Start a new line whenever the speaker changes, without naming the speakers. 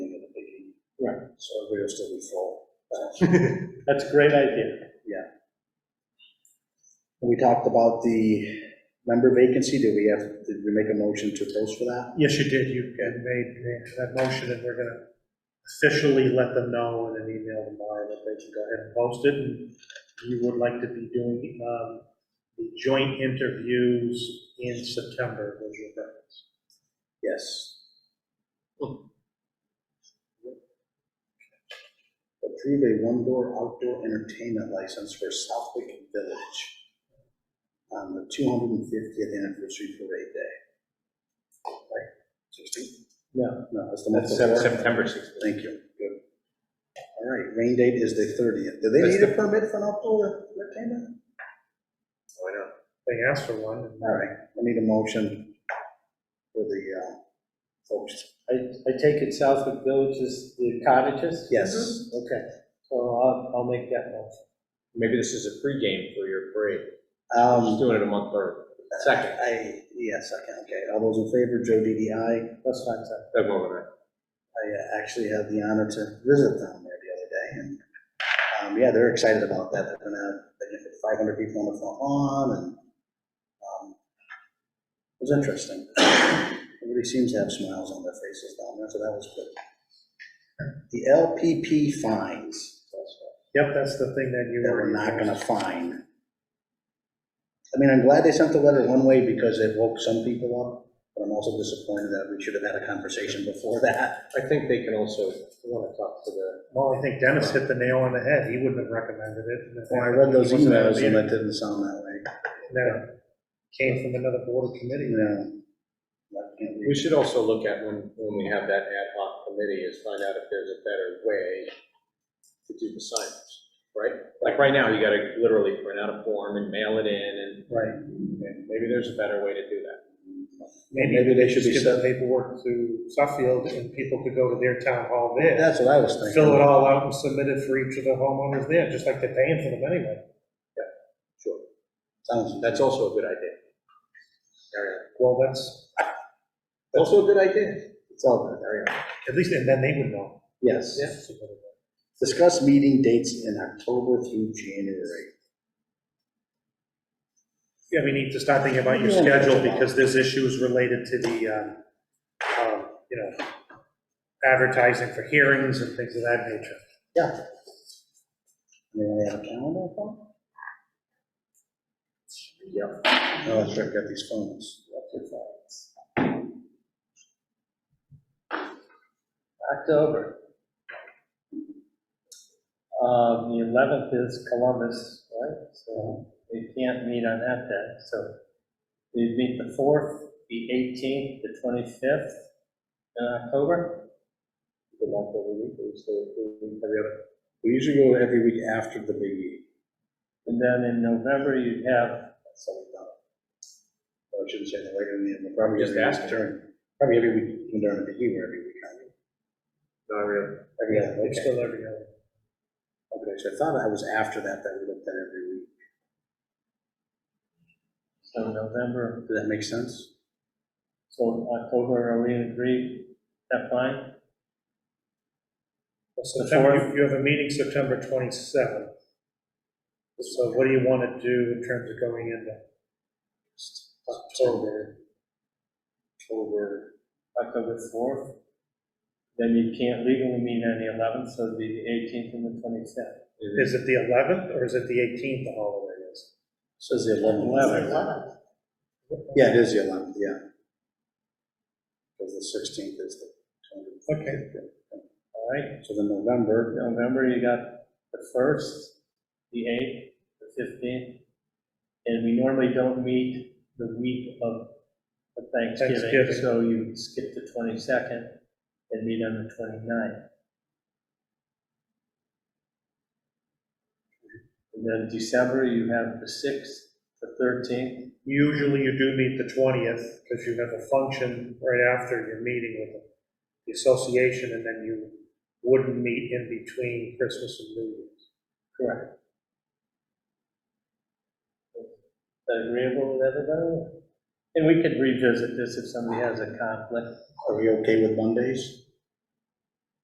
so everybody will still be full.
That's a great idea.
We talked about the member vacancy, did we have, did we make a motion to post for that?
Yes, you did. You you made made that motion, and we're going to officially let them know in an email tomorrow that they can go ahead and post it. And you would like to be doing um, the joint interviews in September, was your preference.
Yes. Hmm. Approve a one-door outdoor entertainment license for Southwick Village on the 250th anniversary parade day. Right, 16?
Yeah.
No, that's the month
That's
before.
September 16th.
Thank you. Good. All right, rain date is the 30th. Do they
That's
need a permit for an outdoor entertainment?
Why not?
They asked for one. and-
All right, I need a motion for the uh, folks.
I, I take it Southwood Village is the cottages?
Yes.
Okay, so I'll, I'll make that motion.
Maybe this is a pregame for your parade. Just
Um,
doing it a month early. Second,
I, yes, I can, okay. All those in favor, Joe Didi, aye.
That's fine, sir.
Doug Mogul, aye.
I uh, actually had the honor to visit down there the other day, and, um, yeah, they're excited about that. They're gonna have, they can put 500 people on the front lawn, and um, it was interesting. Everybody seems to have smiles on their faces down there, so that was good. The LPP fines.
Yep, that's the thing that you
that
were.
we're not gonna find. I mean, I'm glad they sent the letter one way because it woke some people up, but I'm also disappointed that we should have had a conversation before that.
I think they can also, I want to talk to the,
Well, I think Dennis hit the nail on the head. He wouldn't have recommended it.
Well, Oh, I read those
He wasn't at
emails
the
and
meeting.
it didn't sound that way.
No, came from another board committee.
Yeah. I can't
we
read.
should also look at when, when we have that ad hoc committee is find out if there's a better way to do the signage, right? Like right now, you got to literally print out a form and mail it in and
Right.
and maybe there's a better way to do that.
Maybe they should be
Just give the paperwork to Suffield and people could go to their town hall there.
That's what I was thinking.
Fill it all out and submit it for each of the homeowners there, just like they're paying for them anyway.
Sure.
Sounds,
That's also a good idea. Ariana.
Well, that's,
Also a good idea.
it's all good, there you go.
at least, and then they would know.
Yes.
Yeah.
Discuss meeting dates in October through January.
Yeah, we need to start thinking about your
Yeah.
schedule because there's issues related to the, um, um, you know, advertising for hearings and things of that nature.
Yeah. Anyone have a calendar phone? Yep. Oh, that's right, I've got these phones.
October. Um, the eleventh is Columbus, right? So they can't meet on that day, so they meet the fourth, the eighteenth, the twenty-fifth in October.
Good luck every week, we stay every week, every other
We usually go every week after the big meeting.
And then in November, you'd have,
That's how we done it. Well, I shouldn't say that later in the, end, but probably
Just
every
ask
week during, probably every week, even during the big year, every week. I mean,
Not really.
Every other,
It's
okay.
still every other.
Okay, so I thought I was after that, that we looked at every week.
so November,
Does that make sense?
so October, are we in agreement? That fine?
Well, September,
fourth.
you- you have a meeting September 27th. So what do you want to do in terms of going into October?
October,
October 4th. Then you can't legally meet on the 11th, so it'd be the 18th and the 25th.
Is it the 11th or is it the 18th the holiday is?
says the eleventh.
Eleven.
Yeah, it is the eleventh, yeah. Because the sixteenth is the.
Okay.
All right,
So then November,
November, you got the 1st, the 8th, the 15th. And we normally don't meet the week of of Thanksgiving,
Thanksgiving.
so you skip the 22nd and meet on the 29th. And then December, you have the 6th, the 13th,
Usually you do meet the 20th because you have a function right after your meeting with the association and then you wouldn't meet in between Christmas and New Year's.
Correct. Is that Agreeable with everybody? And we could revisit this if somebody has a conflict.
are we okay with Mondays?